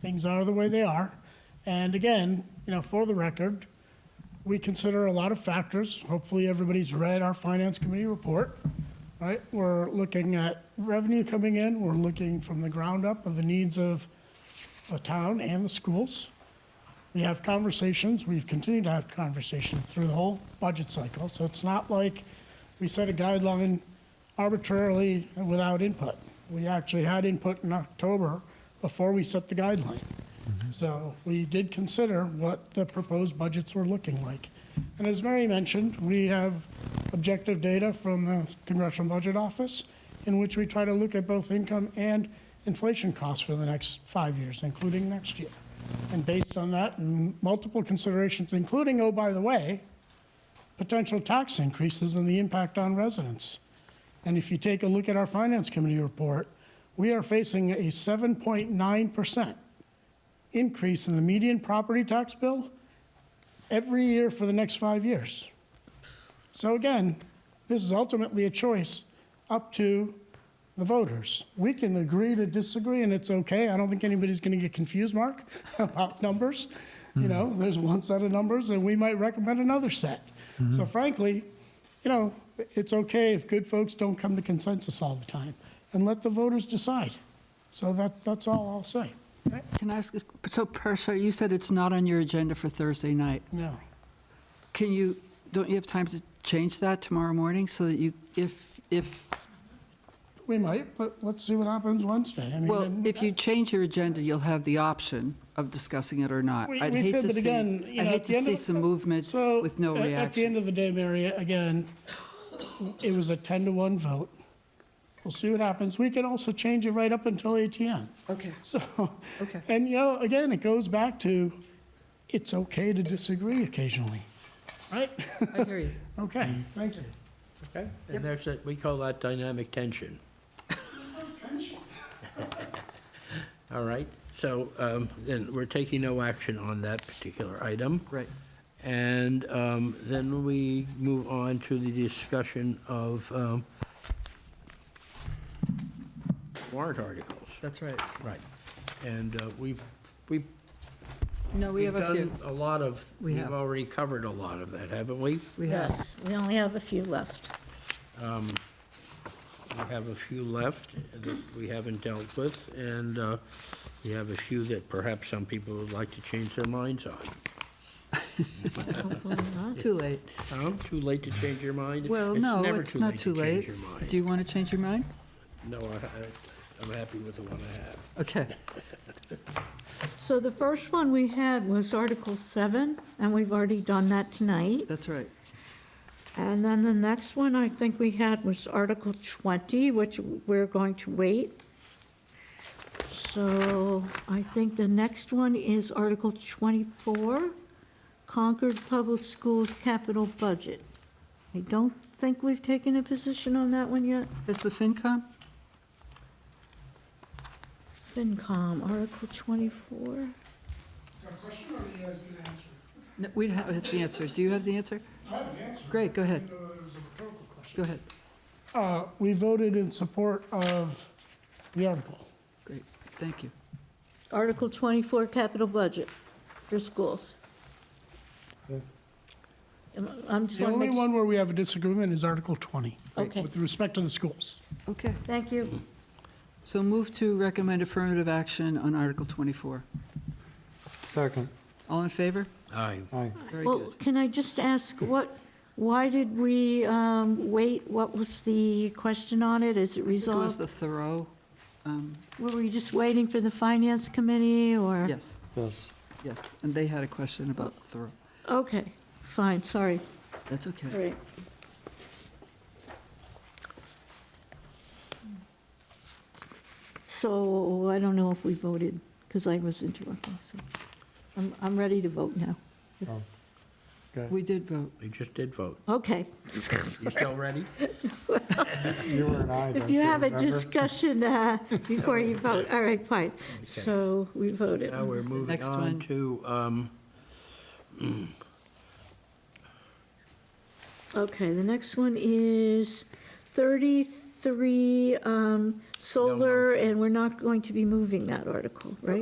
Things are the way they are. And again, you know, for the record, we consider a lot of factors. Hopefully, everybody's read our Finance Committee report, right? We're looking at revenue coming in, we're looking from the ground up of the needs of the town and the schools. We have conversations, we've continued to have conversations through the whole budget cycle, so it's not like we set a guideline arbitrarily and without input. We actually had input in October before we set the guideline. So we did consider what the proposed budgets were looking like. And as Mary mentioned, we have objective data from the Congressional Budget Office in which we try to look at both income and inflation costs for the next five years, including next year. And based on that and multiple considerations, including, oh, by the way, potential tax increases and the impact on residents. And if you take a look at our Finance Committee report, we are facing a 7.9% increase in the median property tax bill every year for the next five years. So again, this is ultimately a choice up to the voters. We can agree to disagree, and it's okay. I don't think anybody's going to get confused, Mark, about numbers. You know, there's one set of numbers, and we might recommend another set. So frankly, you know, it's okay if good folks don't come to consensus all the time, and let the voters decide. So that, that's all I'll say. Can I ask, so Persha, you said it's not on your agenda for Thursday night. No. Can you, don't you have time to change that tomorrow morning so that you, if, if, We might, but let's see what happens Wednesday. I mean, well, and- if you change your agenda, you'll have the option of discussing it or not. We- I'd we hate could, to but see- again, you know, I'd at hate the to end of see the- some movement So, with no a- At the end reaction. of the day, Mary, again, it was a 10 to 1 vote. We'll see what happens. We can also change it right up until ATM. Okay. So, Okay. and you know, again, it goes back to, it's okay to disagree occasionally, right? I hear you. Okay, thank you. Okay, and there's that, we call that dynamic tension. All right, so um, then we're taking no action on that particular item. Right. And um, then we move on to the discussion of um, warrant articles. That's right. Right. And uh, we've, we've No, we we've have a few. done a lot of, We we've have. already covered a lot of that, haven't we? We have. Yes, we only have a few left. We have a few left that we haven't dealt with, and uh, we have a few that perhaps some people would like to change their minds on. Hopefully not. Too late. Tom, too late to change your mind? Well, no, it's not too late. It's never Do too late to change you want to change your mind? your mind. No, I- I- I'm happy with the one I have. Okay. So the first one we had was Article 7, and we've already done that tonight. That's right. And then the next one I think we had was Article 20, which we're going to wait. So I think the next one is Article 24, Concord Public Schools Capital Budget. I don't think we've taken a position on that one yet. Is the FinCom? FinCom, Article 24. No, We don't have the answer. Do you have the answer? I have an answer. Great, go ahead. it was a rhetorical question. Go ahead. Uh, we voted in support of the article. Great, thank you. Article 24, capital budget for schools. Um, I'm just The want to only make, one where we have a disagreement is Article 20. Okay. With respect to the schools. Okay, thank you. so move to recommend affirmative action on Article 24. Second, All in favor? Aye. aye. Very Well, good. can I just ask, what, why did we um, wait? What was the question on it? Is it I think it was resolved? the Thoreau, um, Were we just waiting for the finance committee, or? yes, Yes, yes, and they had a question about Thoreau. Okay, fine, sorry. That's okay. All right. So I don't know if we voted, because I was interrupting, so I'm, I'm ready to vote now. okay. We did vote. We just did vote. Okay. You still ready? You were an aye, If don't you you have a remember? discussion uh, before you vote, all right, fine. So we voted. Now we're moving Next one. on to, um, Okay, the next one is 33 um, solar, and we're not going to be moving that article, right?